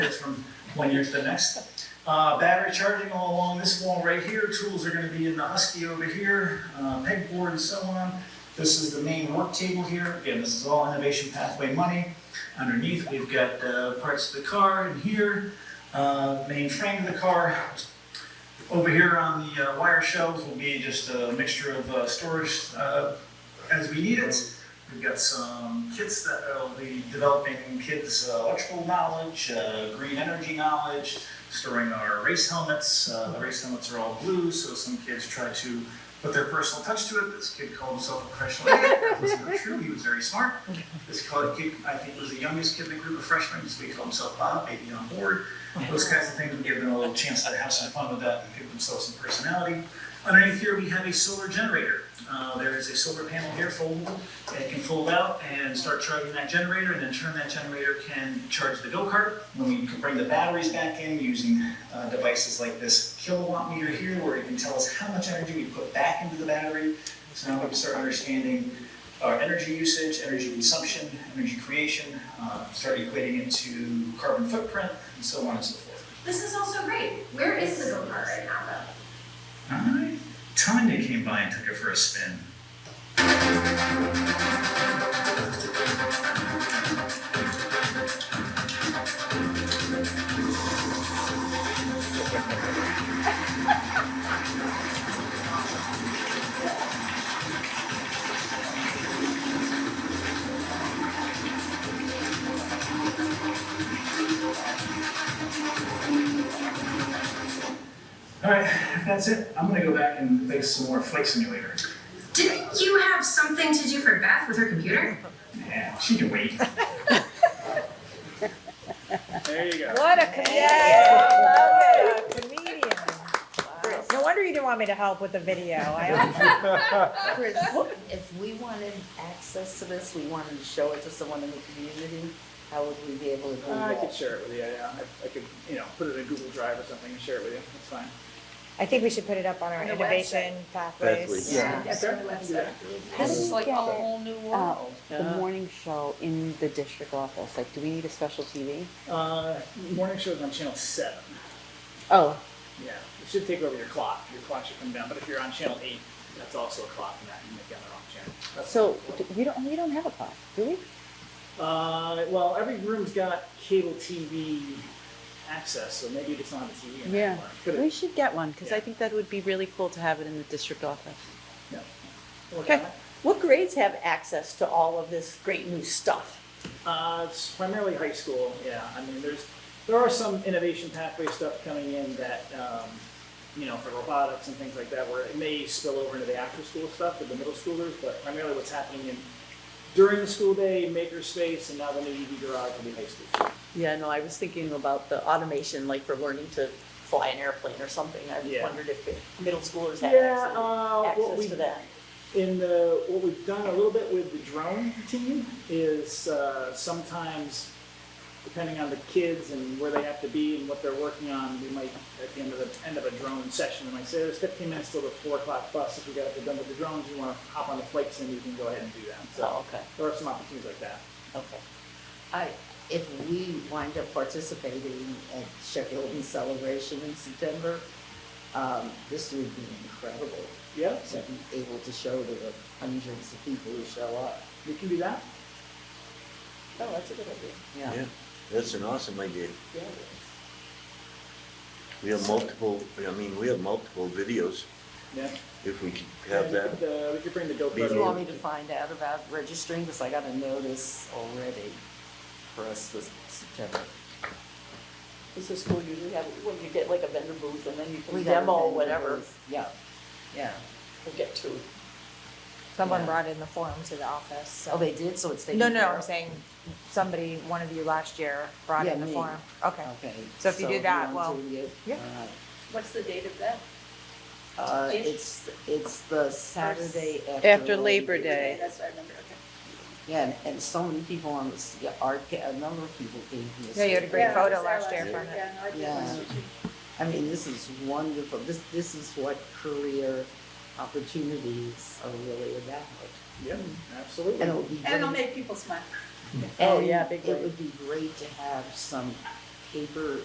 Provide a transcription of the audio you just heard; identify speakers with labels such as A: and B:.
A: It's from one year to the next. Uh, battery charging all along this wall right here, tools are gonna be in the Husky over here, uh, pegboard and so on. This is the main work table here, again, this is all innovation pathway money. Underneath, we've got, uh, parts of the car in here, uh, main frame of the car. Over here on the uh, wire shelves will be just a mixture of, uh, storage, uh, as we need it. We've got some kids that will be developing kids' uh, electrical knowledge, uh, green energy knowledge, storing our race helmets. Uh, the race helmets are all blue, so some kids try to put their personal touch to it. This kid called himself a professional idiot. That was not true. He was very smart. This called kid, I think, was the youngest kid in the group of freshmen. So he called himself Bob, baby on board. Those kinds of things would give them a little chance to have some fun with that and give themselves some personality. Underneath here, we have a solar generator. Uh, there is a solar panel here foldable. It can fold out and start charging that generator, and in turn, that generator can charge the go-kart. When we can bring the batteries back in using uh, devices like this kilowatt meter here, where it can tell us how much energy we put back into the battery. So now we can start understanding our energy usage, energy consumption, energy creation, uh, start equating it to carbon footprint, and so on and so forth.
B: This is also great. Where is the go-kart right now, though?
A: I, Tanya came by and took it for a spin. All right, if that's it, I'm gonna go back and play some more Flight Simulator.
B: Didn't you have something to do for Beth with her computer?
A: Yeah, she can wait.
C: There you go.
D: What a
E: Yeah,
D: comedian. comedian. No wonder you didn't want me to help with the video. I
E: Chris, if we wanted access to this, we wanted to show it to someone in the community, how would we be able to do
C: I could
E: that?
C: share it with you, yeah. I, I could, you know, put it in Google Drive or something and share it with you. That's fine.
D: I think we should put it up on our
B: On the
D: innovation
F: Pathways,
D: pathways.
E: Yeah.
B: That's
C: Sure.
B: on the website.
E: This is like a
F: whole
E: new
F: Uh,
E: world.
F: The morning show in the district office, like, do we need a special TV?
C: Uh, morning show's on channel seven.
F: Oh,
C: Yeah. It should take over your clock. Your clock should come down. But if you're on channel eight, that's also a clock and that you might be on the wrong channel. That's-
F: so d- we don't, we don't have a clock, do we?
C: Uh, well, every room's got cable TV access, so maybe it's not on the TV anymore.
F: Yeah.
C: Could
F: We
C: it?
F: should get one, because
C: Yeah.
F: I think that would be really cool to have it in the district office.
C: Yeah.
F: Okay. What grades have access to all of this great new stuff?
C: Uh, it's primarily high school, yeah. I mean, there's, there are some innovation pathway stuff coming in that, um, you know, for robotics and things like that, where it may spill over into the after-school stuff with the middle schoolers, but primarily what's happening in, during the school day, makerspace, and now the new EV garage will be high school. students.
G: Yeah, no, I was thinking about the automation, like for learning to fly an airplane or something. I
C: Yeah.
G: wondered if the middle schoolers had
C: Yeah,
F: um,
G: access,
C: uh, what we
G: access to that.
C: in the what we've done a little bit with the drone team is uh, sometimes depending on the kids and where they have to be and what they're working on we might at the end of the end of a drone session we might say there's 15 minutes till the four o'clock bus if we got to done with the drones you want to hop on the flights and you can go ahead and do that so
G: Oh, okay,
C: there are some opportunities like that
G: okay.
E: I, if we wind up participating at Sheffield in Celebration in September, um, this would be incredible,
C: yeah
E: to be able to show to the hundreds of people who show up.
C: we can do that
E: Oh, that's a good idea. Yeah.
H: Yeah, that's an awesome idea.
E: Yeah.
H: We have multiple, I mean, we have multiple videos,
C: yeah
H: if we could
C: And
H: have
C: we
H: that.
C: could, uh, we could bring the go
H: Be
E: Do you
H: more-
C: kart
E: want me to find out about registering, because I got a notice already for us this September.
G: Does the school usually have, well, you get like a vendor booth and then you can
E: We got a
G: demo
E: vendor
G: whatever,
E: booth. Yeah, yeah.
G: we get to.
D: Someone
E: Yeah.
D: brought in the form to the office. so-
E: Oh, they did, so it's taken
D: No, no,
E: care
D: I'm
E: of.
D: saying somebody, one of you last year brought
E: Yeah,
D: in the
E: me.
D: form. Okay.
E: Okay.
D: So if you do that,
E: want
D: well,
E: to do it,
D: yeah.
E: all right.
B: What's the date of that?
E: Uh,
B: Ish.
E: it's, it's the Saturday after.
D: Oh.
F: After Labor Day.
B: That's what I remember, okay.
E: Yeah, and- and so many people on this, yeah, our, ca- a number of people came from this.
D: Yeah, you had a great
B: Yeah,
D: photo
B: it was our
D: last year from it.
B: Yeah, no, I did
E: Yeah.
B: last year too.
E: I mean, this is wonderful. This, this is what career opportunities are really about.
C: yeah absolutely
E: And it would be.
B: And it'll
E: great-
B: make people smile.
E: and
F: Oh, yeah, big
E: It
F: way.
E: would be great to have some paper